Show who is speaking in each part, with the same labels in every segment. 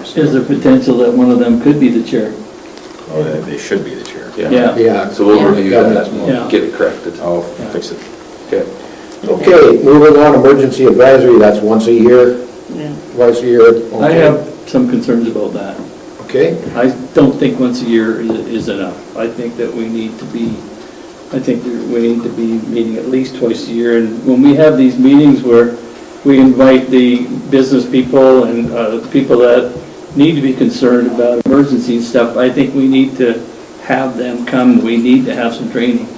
Speaker 1: Is there potential that one of them could be the chair?
Speaker 2: Oh, they- they should be the chair.
Speaker 1: Yeah.
Speaker 3: Yeah.
Speaker 4: So we'll review that
Speaker 1: Yeah.
Speaker 4: and get it corrected.
Speaker 2: I'll fix it.
Speaker 4: Okay.
Speaker 3: Okay, moving on, emergency advisory, that's once a year, twice a year.
Speaker 1: I
Speaker 3: okay.
Speaker 1: have some concerns about that.
Speaker 3: Okay,
Speaker 1: I don't think once a year is is enough. I think that we need to be, I think that we need to be meeting at least twice a year. And when we have these meetings where we invite the business people and uh, people that need to be concerned about emergency and stuff, I think we need to have them come. We need to have some training.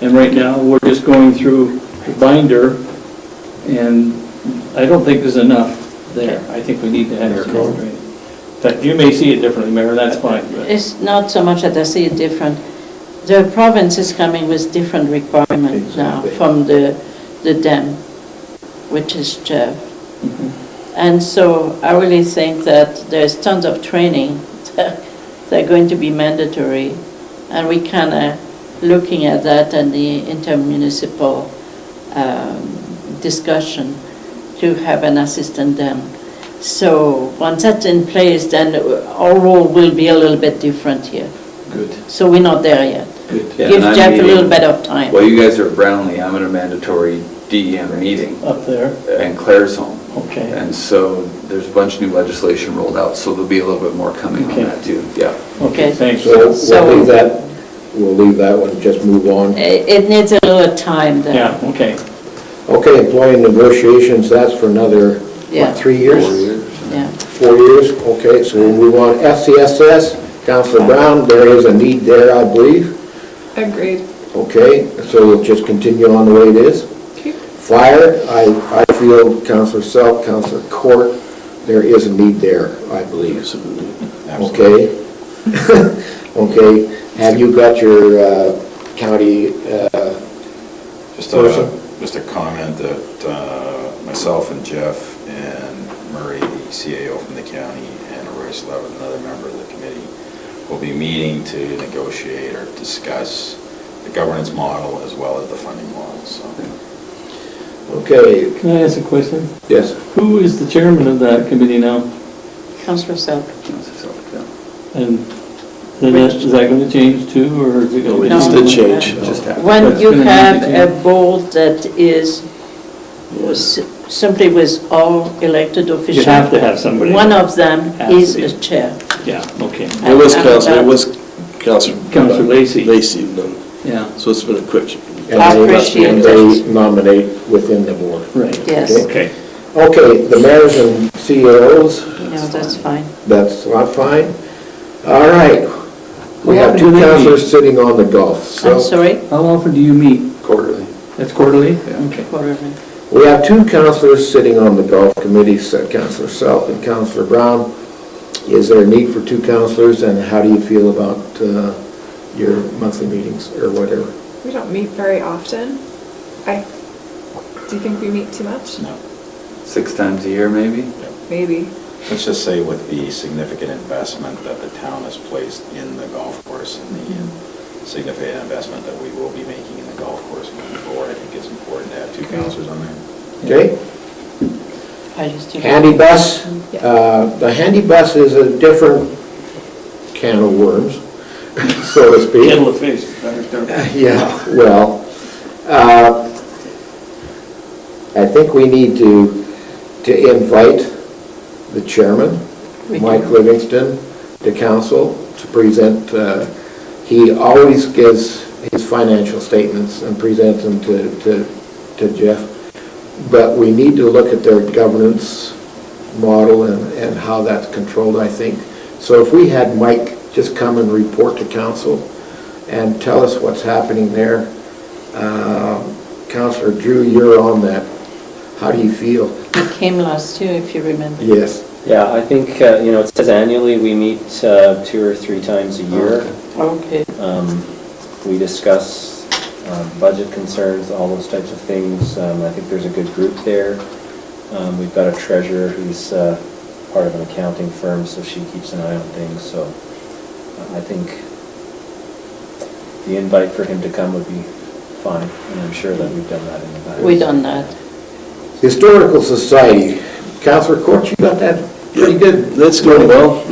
Speaker 1: And right now, we're just going through the binder, and I don't think there's enough there. I think we need to have some more training. In fact, you may see it differently, Mayor, that's fine, but
Speaker 5: It's not so much that I see it different. The province is coming with different requirements now
Speaker 3: Exactly.
Speaker 5: from the, the dam, which is Jeff.
Speaker 1: Mm-hmm.
Speaker 5: And so I really think that there's tons of training that are going to be mandatory. And we kind of looking at that and the intermunicipal um, discussion to have an assistant dam. So once that's in place, then our role will be a little bit different here.
Speaker 4: Good.
Speaker 5: So we're not there yet.
Speaker 4: Yeah,
Speaker 5: Give
Speaker 4: and I'm
Speaker 5: Jeff a little
Speaker 4: meeting-
Speaker 5: bit of time.
Speaker 4: While you guys are at Brownlee, I'm at a mandatory DEM meeting
Speaker 1: up there,
Speaker 4: and Claire's home.
Speaker 1: okay,
Speaker 4: And so there's a bunch of new legislation rolled out, so there'll be a little bit more coming on
Speaker 1: Okay.
Speaker 4: that too. Yeah.
Speaker 1: okay,
Speaker 5: Okay.
Speaker 1: thanks.
Speaker 3: so
Speaker 5: So-
Speaker 3: we'll leave that, we'll leave that one, just move on.
Speaker 5: It it needs a little time there.
Speaker 1: Yeah, okay,
Speaker 3: Okay, employee negotiations, that's for another,
Speaker 5: Yeah.
Speaker 3: what, three
Speaker 4: Four
Speaker 3: years?
Speaker 5: Yeah.
Speaker 3: Four years, okay, so we'll move on. FCSS, Counselor Brown, there is a need there, I believe.
Speaker 6: Agreed.
Speaker 3: Okay, so we'll just continue on the way it is. Fire, I, I feel Counselor Selk, Counselor Court, there is a need there, I believe.
Speaker 2: Absolutely.
Speaker 3: Okay? Okay, have you got your uh, county, uh,
Speaker 2: Just
Speaker 3: Person?
Speaker 2: a, just a comment that uh, myself and Jeff and Murray, the CAO from the county, and Royce Levin, another member of the committee, will be meeting to negotiate or discuss the governance model as well as the funding model, so.
Speaker 3: okay,
Speaker 1: can I ask a question?
Speaker 3: yes,
Speaker 1: Who is the chairman of that committee now?
Speaker 5: Councillor Selk.
Speaker 1: And then that- is that going to change too, or is it going to?
Speaker 5: No. It's the change.
Speaker 4: Just happened.
Speaker 5: When
Speaker 1: That's
Speaker 5: you
Speaker 1: gonna need
Speaker 5: have
Speaker 1: to
Speaker 5: a board that is s- simply with all elected officials.
Speaker 1: have to have somebody.
Speaker 5: One of them
Speaker 1: Has to
Speaker 5: is
Speaker 1: be.
Speaker 5: a chair.
Speaker 1: Yeah, okay,
Speaker 7: It was
Speaker 5: And
Speaker 7: Council,
Speaker 5: that-
Speaker 7: it was Council.
Speaker 1: Councilor Lacy.
Speaker 7: Lacy, no.
Speaker 1: yeah,
Speaker 7: so it's been a quick.
Speaker 3: and they-
Speaker 5: I appreciate
Speaker 3: and they
Speaker 5: it.
Speaker 3: nominate within the board.
Speaker 1: right.
Speaker 5: Yes.
Speaker 1: Okay,
Speaker 3: Okay, the mayors and CEOs,
Speaker 5: No, that's fine.
Speaker 3: that's not fine. All right, we have two
Speaker 1: What happened to them?
Speaker 3: counselors sitting on the golf, so
Speaker 5: I'm sorry.
Speaker 1: how often do you meet?
Speaker 4: Quarterly.
Speaker 1: That's quarterly?
Speaker 4: Yeah.
Speaker 1: Okay.
Speaker 5: Whatever.
Speaker 3: we have two counselors sitting on the golf committee, so Counselor Selk and Counselor Brown. Is there a need for two counselors, and how do you feel about uh, your monthly meetings or whatever?
Speaker 6: We don't meet very often. I, do you think we meet too much?
Speaker 2: No.
Speaker 4: Six times a year, maybe?
Speaker 6: Maybe.
Speaker 2: Let's just say with the significant investment that the town has placed in the golf course and the significant investment that we will be making in the golf course moving forward, I think it's important to have two counselors on there.
Speaker 3: Okay?
Speaker 5: I just do that.
Speaker 3: Handy bus,
Speaker 6: Yeah.
Speaker 3: uh, the handy bus is a different can of worms, so to speak.
Speaker 1: Kettle of fish.
Speaker 3: Yeah, well, uh, I think we need to, to invite the chairman,
Speaker 5: We
Speaker 3: Mike
Speaker 5: do.
Speaker 3: Livingston, to council to present. uh, He always gives his financial statements and presents them to, to, to Jeff. But we need to look at their governance model and, and how that's controlled, I think. So if we had Mike just come and report to council and tell us what's happening there. Um, Counselor Drew, you're on that. How do you feel?
Speaker 5: We came last year, if you remember.
Speaker 3: Yes.
Speaker 8: Yeah, I think, uh, you know, it says annually, we meet uh, two or three times a year.
Speaker 5: Okay.
Speaker 8: Um, We discuss um, budget concerns, all those types of things. Um, I think there's a good group there. Um, We've got a treasurer who's uh, part of an accounting firm, so she keeps an eye on things, so uh, I think the invite for him to come would be fine, and I'm sure that we've done that in the past.
Speaker 5: We done that.
Speaker 3: Historical Society, Counselor Court, you got that?
Speaker 9: pretty good.
Speaker 3: That's going well.